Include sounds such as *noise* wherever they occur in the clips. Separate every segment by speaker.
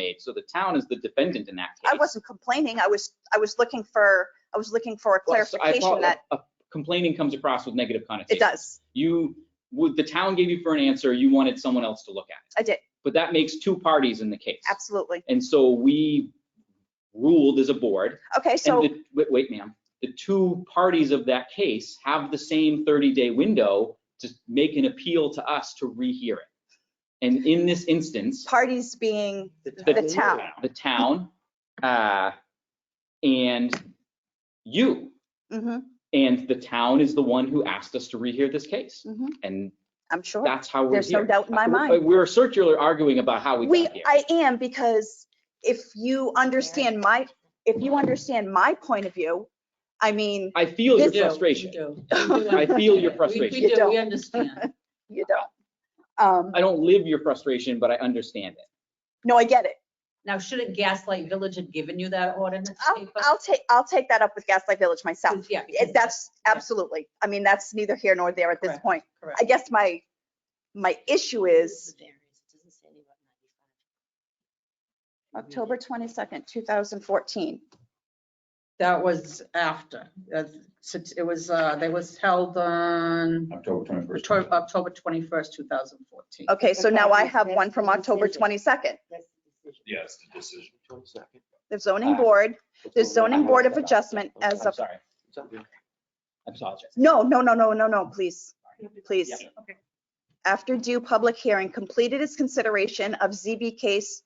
Speaker 1: made. So the town is the defendant in that case.
Speaker 2: I wasn't complaining. I was, I was looking for, I was looking for a
Speaker 1: Well, so I
Speaker 2: clarification
Speaker 1: thought
Speaker 2: that
Speaker 1: a- Complaining comes across with negative connotation.
Speaker 2: it does.
Speaker 1: You, would, the town gave you for an answer, you wanted someone else to look at it.
Speaker 2: I did,
Speaker 1: But that makes two parties in the case.
Speaker 2: absolutely.
Speaker 1: And so we ruled as a board,
Speaker 2: Okay,
Speaker 1: and
Speaker 2: so,
Speaker 1: the, wait, wait, ma'am, the two parties of that case have the same 30-day window to make an appeal to us to rehear it. And in this instance,
Speaker 2: parties being,
Speaker 1: the
Speaker 2: town.
Speaker 1: the town, uh, and you,
Speaker 2: mhm,
Speaker 1: and the town is the one who asked us to rehear this case.
Speaker 2: Mhm.
Speaker 1: And
Speaker 2: I'm sure.
Speaker 1: that's how we're
Speaker 2: There's no
Speaker 1: here.
Speaker 2: doubt in my mind.
Speaker 1: We- We're circular arguing about how we
Speaker 2: We,
Speaker 1: got here.
Speaker 2: I am, because if you understand my, if you understand my point of view, I mean,
Speaker 1: I feel your
Speaker 2: This- Yeah,
Speaker 1: frustration. *laughs*
Speaker 3: I
Speaker 4: *laughs*
Speaker 1: feel your
Speaker 3: We
Speaker 1: frustration.
Speaker 3: do, we understand.
Speaker 2: you don't. Um,
Speaker 1: I don't live your frustration, but I understand it.
Speaker 2: no, I get it.
Speaker 3: Now, shouldn't Gaslight Village have given you that ordinance?
Speaker 2: I'll,
Speaker 3: paper?
Speaker 2: I'll take, I'll take that up with Gaslight Village myself.
Speaker 3: Yeah.
Speaker 2: Oh, It- That's absolutely, I mean, that's neither here nor there at this
Speaker 3: Correct.
Speaker 2: point.
Speaker 3: correct.
Speaker 2: I guess my, my issue is October 22nd, 2014.
Speaker 4: That was after, that's- since it was, uh, they was held on
Speaker 5: October twenty-first.
Speaker 4: Octo- October 21st, 2014.
Speaker 2: Okay, so now I have one from October 22nd.
Speaker 5: Yes, the decision.
Speaker 2: The zoning board, the zoning board of adjustment as
Speaker 1: I'm
Speaker 2: of,
Speaker 1: sorry. I apologize.
Speaker 2: no, no, no, no, no, no, please, please.
Speaker 1: Yeah.
Speaker 2: After due public hearing, completed its consideration of ZB case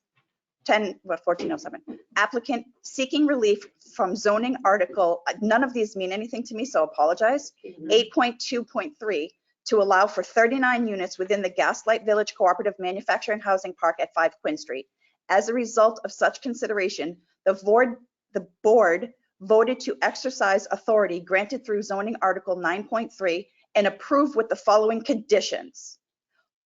Speaker 2: 10, what, 1407. Applicant seeking relief from zoning article, none of these mean anything to me, so apologize. 8.2.3 to allow for 39 units within the Gaslight Village Cooperative Manufacturing Housing Park at 5 Quinn Street. As a result of such consideration, the board, the board voted to exercise authority granted through zoning article 9.3 and approve with the following conditions.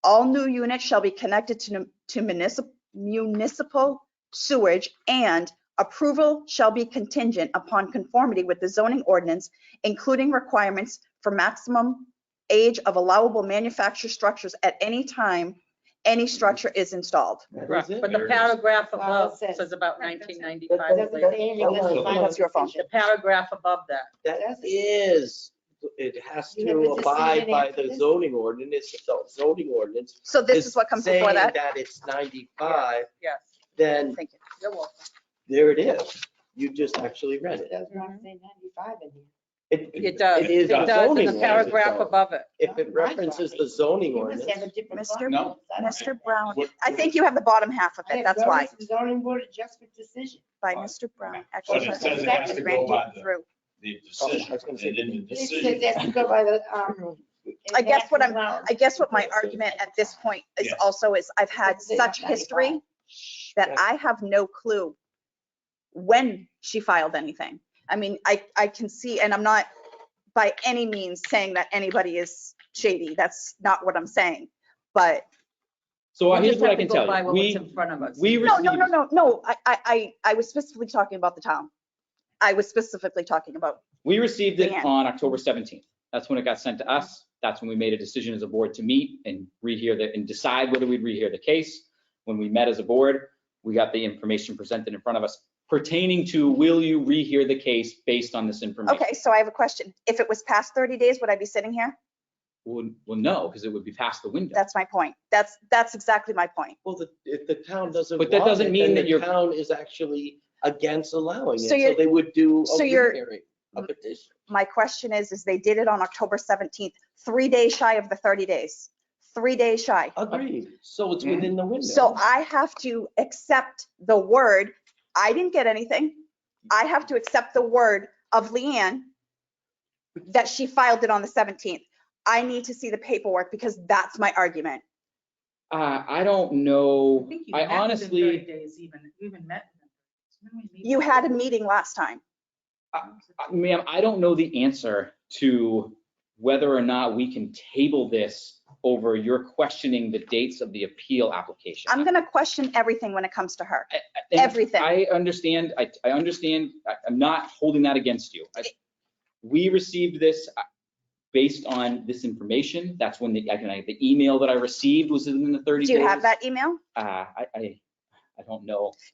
Speaker 2: All new units shall be connected to municipal, municipal sewage and approval shall be contingent upon conformity with the zoning ordinance including requirements for maximum age of allowable manufactured structures at any time any structure is installed.
Speaker 4: Correct. But
Speaker 5: There
Speaker 4: the
Speaker 5: it is.
Speaker 4: paragraph
Speaker 6: Wow,
Speaker 4: above
Speaker 6: it says-
Speaker 4: says about
Speaker 6: Right, that's it.
Speaker 4: 1995.
Speaker 2: That's your phone.
Speaker 4: The paragraph above that.
Speaker 7: That is, it has
Speaker 6: You have a
Speaker 7: to abide
Speaker 6: decision
Speaker 7: by
Speaker 6: after
Speaker 7: the
Speaker 6: this?
Speaker 7: zoning ordinance, so zoning ordinance.
Speaker 2: So this is what comes before that?
Speaker 7: Saying that it's 95,
Speaker 4: Yes.
Speaker 7: then
Speaker 2: Thank you.
Speaker 4: You're welcome.
Speaker 7: there it is. You just actually read it. It,
Speaker 4: It does.
Speaker 7: It is
Speaker 4: It
Speaker 7: a
Speaker 4: does
Speaker 7: zoning
Speaker 4: in the
Speaker 7: ordinance.
Speaker 4: paragraph
Speaker 7: so
Speaker 4: above it.
Speaker 7: If it references the zoning ordinance,
Speaker 2: Mr.
Speaker 5: No.
Speaker 2: Mr. Brown,
Speaker 5: What-
Speaker 2: I think you have the bottom half of it, that's why,
Speaker 6: Zoning board adjustment decision.
Speaker 2: by Mr. Brown.
Speaker 5: But
Speaker 2: actually
Speaker 5: it says it has to go by the,
Speaker 2: through.
Speaker 5: the
Speaker 7: I
Speaker 5: decision,
Speaker 7: was gonna say-
Speaker 5: and then the
Speaker 6: It says
Speaker 5: decision.
Speaker 6: it has to go by the, um.
Speaker 2: I guess what I'm-
Speaker 6: maximum
Speaker 2: I guess what my argument at this point is
Speaker 5: Yeah.
Speaker 2: also is I've had such history that I have no clue when she filed anything. I mean, I, I can see, and I'm not by any means saying that anybody is shady. That's not what I'm saying. But
Speaker 1: So uh,
Speaker 4: We
Speaker 1: here's
Speaker 4: just
Speaker 1: what I
Speaker 4: have to
Speaker 1: can
Speaker 4: go
Speaker 1: tell
Speaker 4: by
Speaker 1: you.
Speaker 4: what's
Speaker 1: We,
Speaker 4: in front of us.
Speaker 1: we
Speaker 2: no, no, no,
Speaker 1: received,
Speaker 2: no, no. I, I, I I was specifically talking about the town. I was specifically talking about,
Speaker 1: we received it
Speaker 2: Yeah.
Speaker 1: on October 17th. That's when it got sent to us. That's when we made a decision as a board to meet and rehear the, and decide whether we'd rehear the case. When we met as a board, we got the information presented in front of us pertaining to will you rehear the case based on this information?
Speaker 2: okay, so I have a question. If it was past 30 days, would I be sitting here?
Speaker 1: Well, well, no, because it would be past the window.
Speaker 2: That's my point. That's, that's exactly my point.
Speaker 7: well, the, if the town doesn't
Speaker 1: But that
Speaker 7: want
Speaker 1: doesn't
Speaker 7: it,
Speaker 1: mean
Speaker 7: then
Speaker 1: that
Speaker 7: the
Speaker 1: you're-
Speaker 7: Town is actually against allowing it,
Speaker 2: So
Speaker 7: so
Speaker 2: you're-
Speaker 7: they would do a
Speaker 2: so you're-
Speaker 7: rehearing, a petition.
Speaker 2: My question is, is they did it on October 17th, three days shy of the 30 days, three days shy.
Speaker 7: Agreed, so it's
Speaker 1: Mhm.
Speaker 7: within the window.
Speaker 2: So I have to accept the word, I didn't get anything. I have to accept the word of Leanne that she filed it on the 17th. I need to see the paperwork because that's my argument.
Speaker 1: Uh, I don't know.
Speaker 3: think you
Speaker 1: I
Speaker 3: met within
Speaker 1: honestly,
Speaker 2: You had a meeting last time.
Speaker 1: I- uh, ma'am, I don't know the answer to whether or not we can table this over your questioning the dates of the appeal application.
Speaker 2: I'm going to question everything when it comes to her.
Speaker 1: And
Speaker 2: everything.
Speaker 1: I understand, I, I understand, I- I'm not holding that against you. I- We received this uh, based on this information. That's when the, I can, I- the email that I received was in the 30
Speaker 2: Do
Speaker 1: days.
Speaker 2: you have that email?
Speaker 1: Uh, I, I, I I don't know.